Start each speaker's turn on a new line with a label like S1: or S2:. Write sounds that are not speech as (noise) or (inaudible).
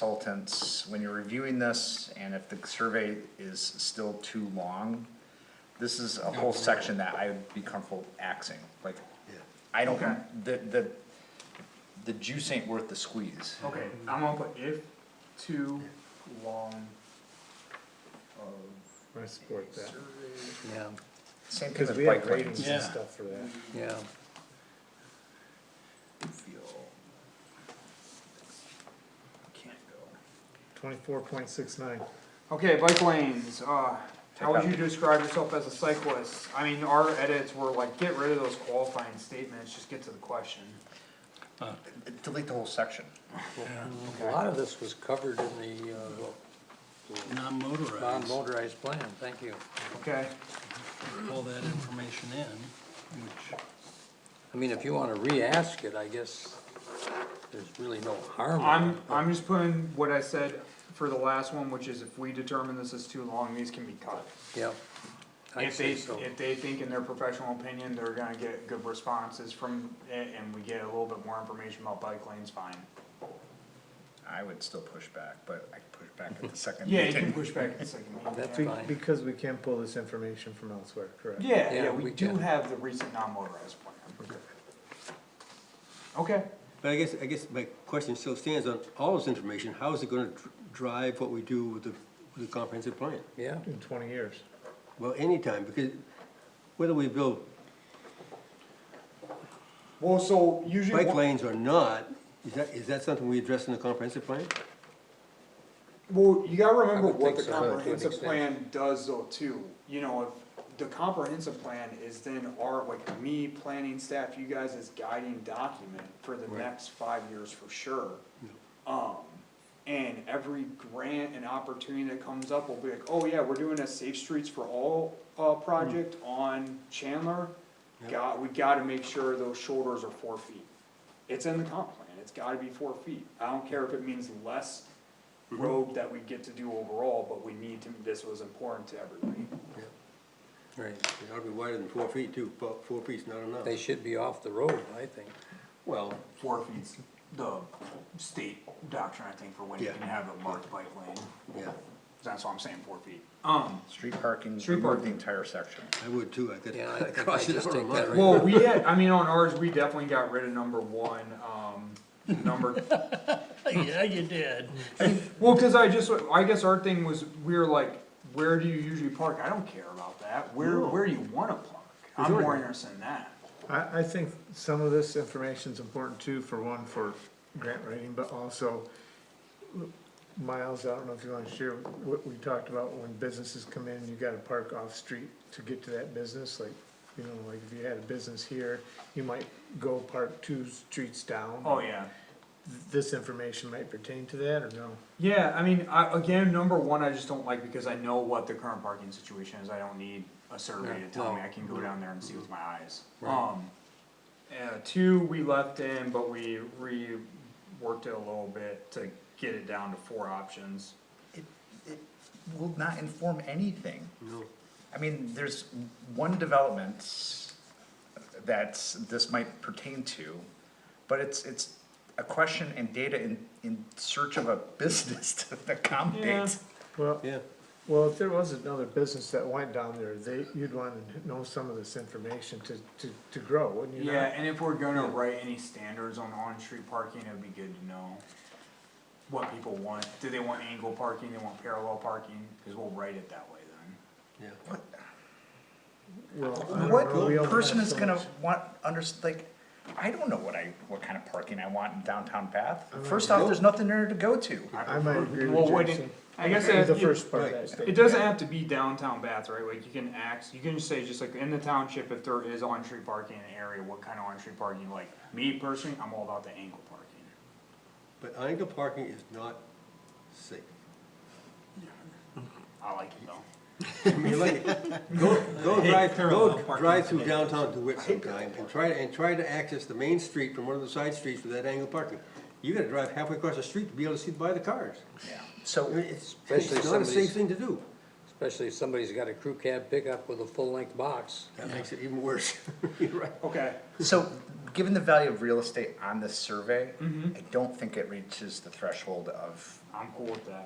S1: consultants, when you're reviewing this, and if the survey is still too long, this is a whole section that I would be comfortable axing, like, I don't, the, the, the juice ain't worth the squeeze.
S2: Okay, I'm gonna put if too long uh, of
S3: I support that,
S2: survey.
S4: yeah,
S1: Same thing
S3: because
S1: with
S3: we have
S1: bike lanes.
S3: ratings
S4: Yeah.
S3: and stuff for that.
S4: yeah,
S2: feel can't go.
S3: Twenty-four point six nine,
S2: Okay, bike lanes, uh,
S1: Take
S2: how would
S1: out-
S2: you describe yourself as a cyclist? I mean, our edits were like, get rid of those qualifying statements, just get to the question.
S1: Delete the whole section.
S4: a lot of this was covered in the, uh,
S5: non-motorized,
S4: non-motorized plan, thank you.
S2: Okay,
S5: pull that information in, which,
S4: I mean, if you wanna re-ask it, I guess there's really no harm. in
S2: I'm,
S4: it, but-
S2: I'm just putting what I said for the last one, which is if we determine this is too long, these can be cut.
S4: Yep. I'd
S2: If they,
S4: say so.
S2: if they think in their professional opinion, they're gonna get good responses from, it, and we get a little bit more information about bike lanes, fine.
S1: I would still push back, but I could push back at the second
S2: Yeah, you
S1: meeting.
S2: can push back a (laughs) second.
S4: That's
S3: Be-
S4: fine.
S3: because we can pull this information from elsewhere, correct?
S2: Yeah,
S4: Yeah,
S2: yeah, we
S4: we
S2: do
S4: can.
S2: have the recent non-motorized plan. Okay,
S5: but I guess, I guess my question still stands on all this information, how is it gonna dr- drive what we do with the, with the comprehensive plan?
S4: Yeah,
S3: In twenty years.
S5: Well, anytime, because whether we build
S2: well, so usually.
S5: bike lanes or not, is that, is that something we address in the comprehensive plan?
S2: Well, you gotta
S4: I
S2: remember
S4: would
S2: what
S4: think
S2: the
S4: so, to an
S2: comprehensive
S4: extent.
S2: plan does though too, you know, if the comprehensive plan is then our, like me, planning staff, you guys as guiding document for the next five years for sure. Um, and every grant and opportunity that comes up will be like, oh yeah, we're doing a Safe Streets for All, uh,
S4: Hmm.
S2: project on Chandler. Got, we gotta make sure those shoulders are four feet. It's in the comp plan, it's gotta be four feet. I don't care if it means less road that we get to do overall, but we need to, this was important to everybody.
S4: right.
S5: It ought to be wider than four feet too, four, four feet's not enough.
S4: They should be off the road, I think.
S5: Well,
S2: Four feet's the state doctrine, I think, for when you
S5: Yeah.
S2: can have a marked bike lane.
S5: yeah,
S2: That's why I'm saying four feet. Um,
S1: Street parking,
S2: Street
S1: remove the
S2: parking.
S1: entire section.
S5: I would too, I could.
S4: Yeah,
S5: (laughs)
S4: I think I
S5: cross it
S4: just
S5: out
S4: take
S5: on
S4: that
S5: mine.
S4: right-
S2: well, we had, I mean, on ours, we definitely got rid of number one, um, number
S5: (laughs) Yeah, you did.
S2: Well, cause I just, I guess our thing was, we were like, where do you usually park? I don't care about that. Where, where do you wanna park? I'm more interested in that.
S3: I, I think some of this information's important too, for one, for grant writing, but also, Miles, I don't know if you wanna share what we talked about when businesses come in, you gotta park off-street to get to that business, like, you know, like if you had a business here, you might go park two streets down.
S2: Oh, yeah.
S3: This information might pertain to that, or no?
S2: Yeah, I mean, I, again, number one, I just don't like because I know what the current parking situation is, I don't need a survey to tell me, I can go down there and see with my eyes. Um, uh, two, we left in, but we reworked it a little bit to get it down to four options.
S1: It, it will not inform anything.
S5: No.
S1: I mean, there's one development that's, this might pertain to, but it's, it's a question and data in, in search of a business (laughs) to accommodate.
S3: Well,
S5: Yeah,
S3: Well, if there was another business that went down there, they, you'd wanna know some of this information to, to, to grow, wouldn't you not?
S2: Yeah, and if we're gonna write any standards on on-street parking, it'd be good to know what people want, do they want angle parking, they want parallel parking, cause we'll write it that way then.
S5: yeah.
S3: Well, I don't
S1: What
S3: know, we all
S1: person
S3: have
S1: is
S3: so
S1: gonna
S3: much-
S1: want, under, like, I don't know what I, what kind of parking I want in downtown Bath. First off, there's nothing there to go to.
S3: I might agree
S2: Well,
S3: with
S2: wouldn't-
S3: Jason,
S2: I guess
S3: the
S2: it,
S3: first part of that
S2: it
S3: statement.
S2: doesn't have to be downtown Bath, right, like, you can ax, you can just say, just like, in the township, if there is on-street parking in an area, what kind of on-street parking, you like, me personally, I'm all about the angle parking.
S5: But angle parking is not safe.
S2: I like it though.
S5: I mean, (laughs) like, go, go drive,
S2: parallel
S5: go
S2: parking
S5: drive through downtown DeWitt sometime and try, and try to access the main street from one of the side streets with that angle parking. You gotta drive halfway across the street to be able to see by the cars.
S1: Yeah.
S5: I
S1: So
S5: mean, It's,
S4: Especially
S5: it's not a
S4: somebody's-
S5: safe thing to do.
S4: especially if somebody's got a crew cab pickup with a full-length box.
S5: That makes it even worse. (laughs) You're right.
S2: Okay,
S1: So, given the value of real estate on this survey, I don't think it reaches the threshold of
S2: I'm cool with that.